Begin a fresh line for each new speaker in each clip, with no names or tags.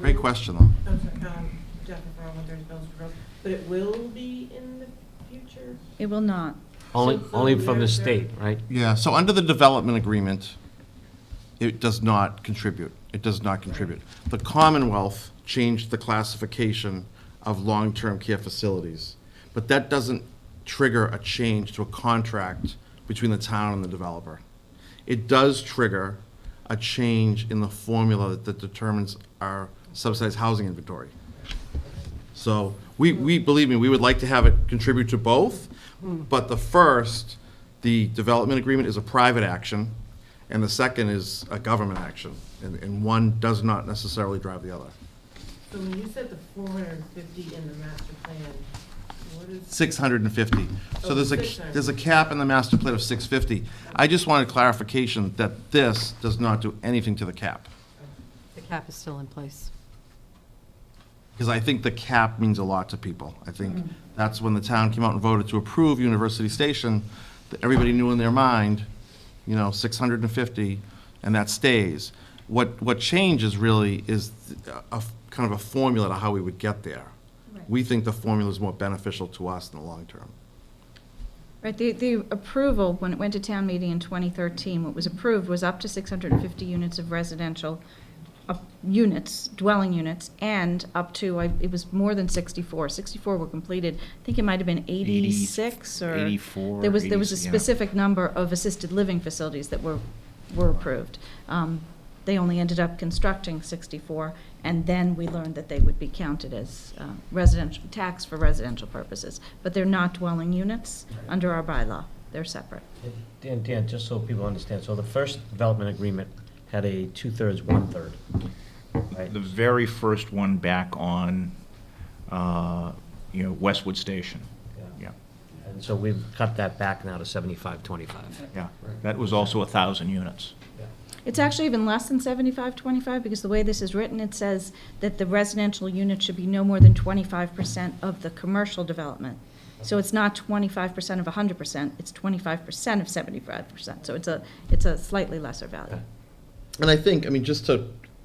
Great question, though.
I'm sorry, um, Jennifer, Brown, 130 Bells Road, but it will be in the future?
It will not.
Only,
So- so
only from the
there's-
state, right?
Yeah, so under the development agreement, it does not contribute. It does not contribute. The Commonwealth changed the classification of long-term care facilities, but that doesn't trigger a change to a contract between the town and the developer. It does trigger a change in the formula that determines our subsidized housing inventory. So we, we, believe me, we would like to have it contribute to both, but the first, the development agreement is a private action, and the second is a government action, and, and one does not necessarily drive the other.
So when you said the 450 in the master plan, what is,
Six hundred and fifty. So there's a, there's a cap in the master plan of six fifty. I just wanted clarification that this does not do anything to the cap,
The cap is still in place.
because I think the cap means a lot to people. I think that's when the town came out and voted to approve University Station, that everybody knew in their mind, you know, 650, and that stays. What, what changes really is a, a f- kind of a formula to how we would get there.
Right.
We think the formula is more beneficial to us in the long term.
Right, the, the approval, when it went to town meeting in 2013, what was approved was up to 650 units of residential, of units, dwelling units, and up to, I- it was more than 64. 64 were completed, I think it might have been 86 or...
84,
There was, there was a
80, yeah.
specific number of assisted living facilities that were, were approved. Um, They only ended up constructing 64, and then we learned that they would be counted as uh, residential, tax for residential purposes. But they're not dwelling units under our bylaw, they're separate.
Dan, Dan, just so people understand, so the first development agreement had a two-thirds, one-third, right?
The very first one back on, uh, you know, Westwood Station.
Yeah.
Yeah,
And so we've cut that back now to seventy-five, twenty-five.
yeah. That was also a 1,000 units.
It's actually even less than 75, 25, because the way this is written, it says that the residential unit should be no more than 25% of the commercial development. So it's not 25% of 100%, it's 25% of 75%. So it's a, it's a slightly lesser value.
And I think, I mean, just to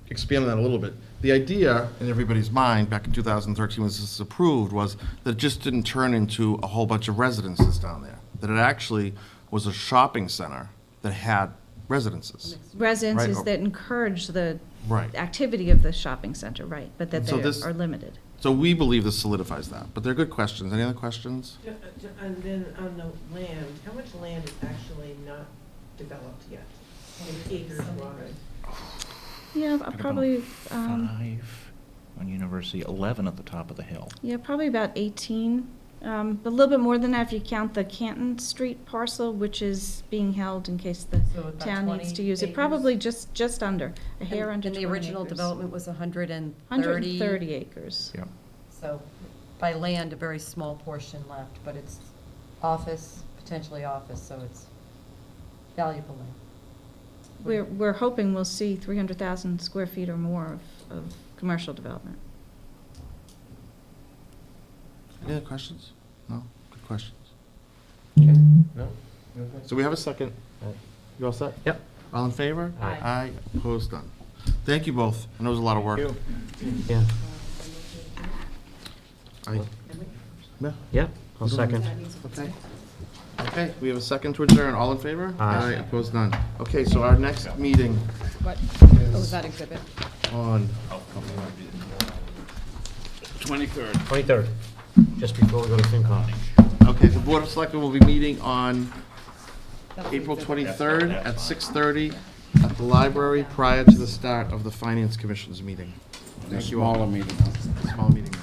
expand on that a little bit, the idea in everybody's mind back in 2013 when this was approved was that it just didn't turn into a whole bunch of residences down there, that it actually was a shopping center that had residences.
Residences
Right. oh.
that encourage the
Right.
activity of the shopping center, right, but that
So this-
they are limited.
So we believe this solidifies that, but they're good questions. Any other questions?
ju- ju- and then on the land, how much land is actually not developed yet? In acres wide?
Yeah, uh, probably, um,
Five on University, 11 at the top of the hill.
yeah, probably about 18, um, but a little bit more than that if you count the Canton Street parcel, which is being held in case the
So about
town needs to
20
use it.
acres?
Probably just, just under, a hair
And
under
and
20
the original
acres.
development was 130.
130 acres.
Yep.
So by land, a very small portion left, but it's office, potentially office, so it's valuable land.
We're, we're hoping we'll see 300,000 square feet or more of, of commercial development.
Any other questions? No? Good questions.
No?
So we have a second. You all set?
Yep.
All in favor?
Aye.
Aye, opposed, none. Thank you both. I know it was a lot of work.
Yeah,
Aye. Yeah.
yeah, I'll second.
Okay. Okay, we have a second to adjourn. All in favor?
Aye.
Opposed, none. Okay, so our next meeting
What,
oh,
is
that exhibit?
on,
Twenty-third, just before we go to FinCon.
okay, the Board of Selectmen will be meeting on April 23rd at 6:30 at the library prior to the start of the Finance Commission's meeting. Thank you all. Smaller meeting. Small meeting.